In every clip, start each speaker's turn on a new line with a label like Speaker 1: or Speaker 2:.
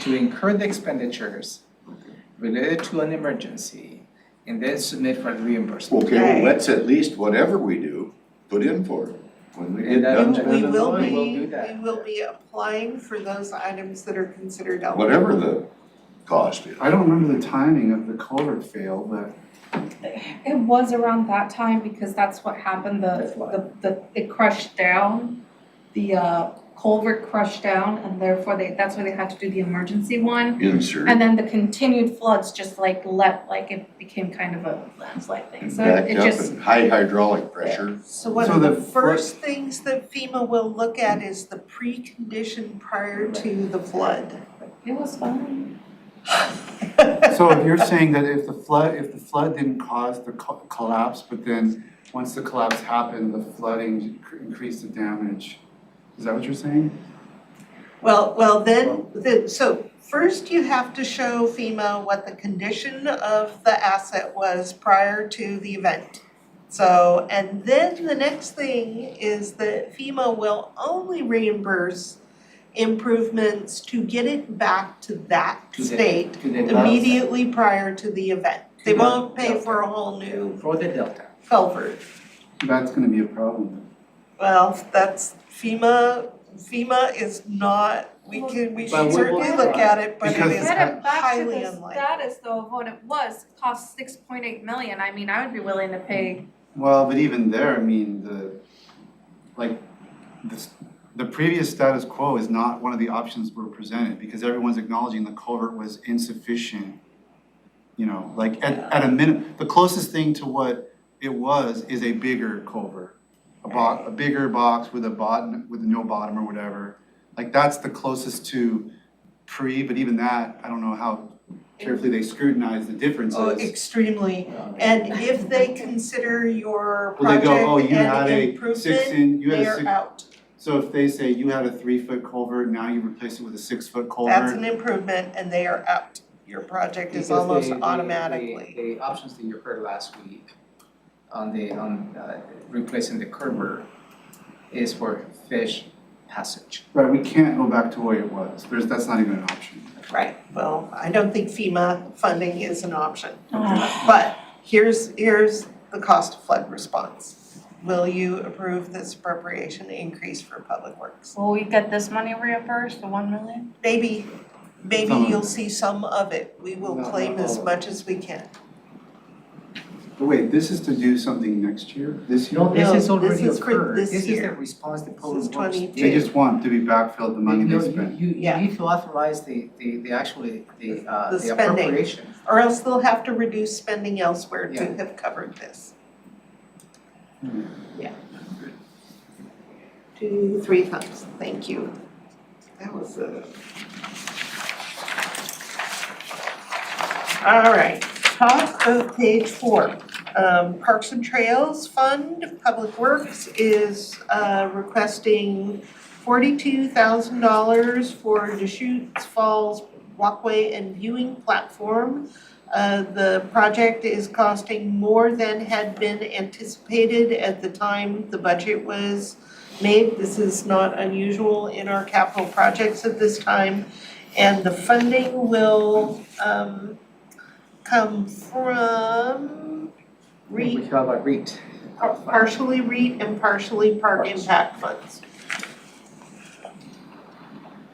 Speaker 1: to incur the expenditures related to an emergency and then submit for the reimbursement.
Speaker 2: Okay, well,
Speaker 3: Okay.
Speaker 2: let's at least, whatever we do, put in for it. When we get
Speaker 1: And
Speaker 2: done
Speaker 1: that'll-
Speaker 2: spending
Speaker 3: We
Speaker 2: the
Speaker 3: will
Speaker 2: money,
Speaker 3: be,
Speaker 1: We'll do
Speaker 3: we
Speaker 1: that.
Speaker 3: will be applying for those items that are considered eligible.
Speaker 2: whatever the cost is.
Speaker 4: I don't remember the timing of the culvert fail, but
Speaker 5: It was around that time because that's what happened,
Speaker 1: That's why.
Speaker 5: the, the, the, it crushed down. The uh, culvert crushed down and therefore they, that's why they had to do the emergency one.
Speaker 2: Insert,
Speaker 5: And then the continued floods just like let, like it became kind of a landslide thing,
Speaker 2: and
Speaker 5: so
Speaker 2: back
Speaker 5: it
Speaker 2: up
Speaker 5: just,
Speaker 2: and high hydraulic pressure.
Speaker 3: So one
Speaker 4: So
Speaker 3: of the
Speaker 4: the fir-
Speaker 3: first things that FEMA will look at is the precondition prior to the flood.
Speaker 5: it was fun.
Speaker 4: so if you're saying that if the flood, if the flood didn't cause the co- collapse, but then once the collapse happened, the flooding cr- increased the damage, is that what you're saying?
Speaker 3: Well, well, then, the, so first you have to show FEMA what the condition of the asset was prior to the event. So, and then the next thing is that FEMA will only reimburse improvements to get it back to that
Speaker 1: To the-
Speaker 3: state
Speaker 1: To the delta.
Speaker 3: immediately prior to the event. They won't pay for a whole new
Speaker 1: For the delta.
Speaker 3: culvert.
Speaker 4: That's gonna be a problem.
Speaker 3: Well, that's FEMA, FEMA is not, we can, we
Speaker 1: But
Speaker 3: should
Speaker 1: we-
Speaker 3: certainly look at it, but it
Speaker 4: Because-
Speaker 3: is
Speaker 5: Get it back to
Speaker 3: highly
Speaker 5: the
Speaker 3: unlikely.
Speaker 5: status though of what it was, cost six point eight million, I mean, I would be willing to pay,
Speaker 4: Well, but even there, I mean, the, like, this, the previous status quo is not one of the options we're presented, because everyone's acknowledging the culvert was insufficient. You know, like, at, at a minimum, the closest thing to what it was is a bigger culvert. A bo- a bigger box with a bottom, with no bottom or whatever, like, that's the closest to pre, but even that, I don't know how carefully they scrutinize the differences.
Speaker 3: Oh, extremely, and if they consider your
Speaker 4: Well, they
Speaker 3: project
Speaker 4: go, oh, you had
Speaker 3: an
Speaker 4: a six
Speaker 3: improvement,
Speaker 4: in, you had
Speaker 3: they
Speaker 4: a
Speaker 3: are
Speaker 4: six,
Speaker 3: out.
Speaker 4: so if they say you had a three foot culvert, now you replace it with a six foot
Speaker 3: That's an
Speaker 4: culvert.
Speaker 3: improvement and they are out. Your project
Speaker 1: Because
Speaker 3: is
Speaker 1: the-
Speaker 3: almost
Speaker 1: the- the-
Speaker 3: automatically.
Speaker 1: The options that you heard last week on the, on uh, replacing the curber is for fish passage.
Speaker 4: Right, we can't go back to what it was, there's, that's not even an option.
Speaker 3: Right, well, I don't think FEMA funding is an option.
Speaker 5: oh,
Speaker 3: But here's, here's the cost of flood response. Will you approve this appropriation increase for public works?
Speaker 5: will we get this money reimbursed, the one million?
Speaker 3: Maybe, maybe
Speaker 4: Some of
Speaker 3: you'll
Speaker 4: it.
Speaker 3: see some of it. We will
Speaker 1: Not- not
Speaker 3: claim
Speaker 1: all
Speaker 3: as
Speaker 1: of it.
Speaker 3: much as we can.
Speaker 4: But wait, this is to do something next year, this year?
Speaker 1: No, this has
Speaker 3: No, this
Speaker 1: already
Speaker 3: is for
Speaker 1: occurred.
Speaker 3: this
Speaker 1: This is the
Speaker 3: year.
Speaker 1: response that
Speaker 3: This
Speaker 1: Poland
Speaker 3: is
Speaker 1: Works did.
Speaker 3: 22.
Speaker 4: They just want to be backfilled the money
Speaker 1: No,
Speaker 4: they
Speaker 1: you-
Speaker 4: spent.
Speaker 1: You, you
Speaker 3: Yeah.
Speaker 1: need to authorize the, the, the actually, the, uh,
Speaker 3: The
Speaker 1: the
Speaker 3: spending.
Speaker 1: appropriation.
Speaker 3: Or else they'll have to reduce spending elsewhere to
Speaker 1: Yeah.
Speaker 3: have covered this.
Speaker 4: Hmm.
Speaker 3: Yeah. Two, three thumbs, thank you. That was a. All right, top of page four, um, Parks and Trails Fund, Public Works is, uh, requesting forty-two thousand dollars for Deschutes Falls walkway and viewing platform. Uh, the project is costing more than had been anticipated at the time the budget was made. This is not unusual in our capital projects at this time. And the funding will um come from REIT
Speaker 1: We have a REIT.
Speaker 3: par- partially REIT and partially park
Speaker 1: Parks.
Speaker 3: impact funds.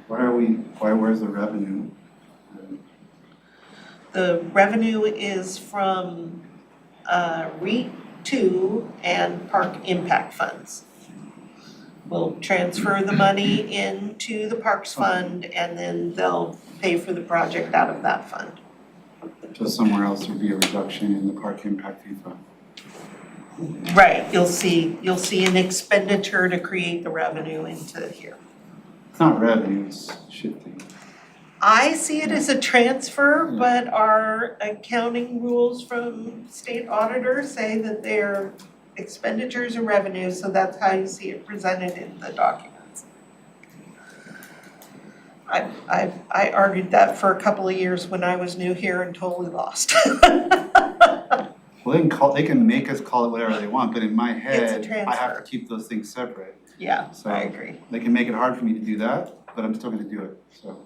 Speaker 4: Why are we, why, where's the revenue?
Speaker 3: The revenue is from uh REIT two and park impact funds. We'll transfer the money into the parks fund and then they'll pay for the project out of that fund.
Speaker 4: Just somewhere else would be a reduction in the park impact fee fund.
Speaker 3: Right, you'll see, you'll see an expenditure to create the revenue into here.
Speaker 4: It's not revenue, it's shifting.
Speaker 3: I see it as a transfer, but our accounting rules from state auditors say that they're expenditures and revenues, so that's how you see it presented in the documents. I I I argued that for a couple of years when I was new here and totally lost.
Speaker 4: Well, they can call, they can make us call it whatever they want, but in my head, I have
Speaker 3: transfer.
Speaker 4: to keep those things separate.
Speaker 3: Yeah,
Speaker 4: So-
Speaker 3: I agree.
Speaker 4: They can make it hard for me to do that, but I'm still gonna do it, so.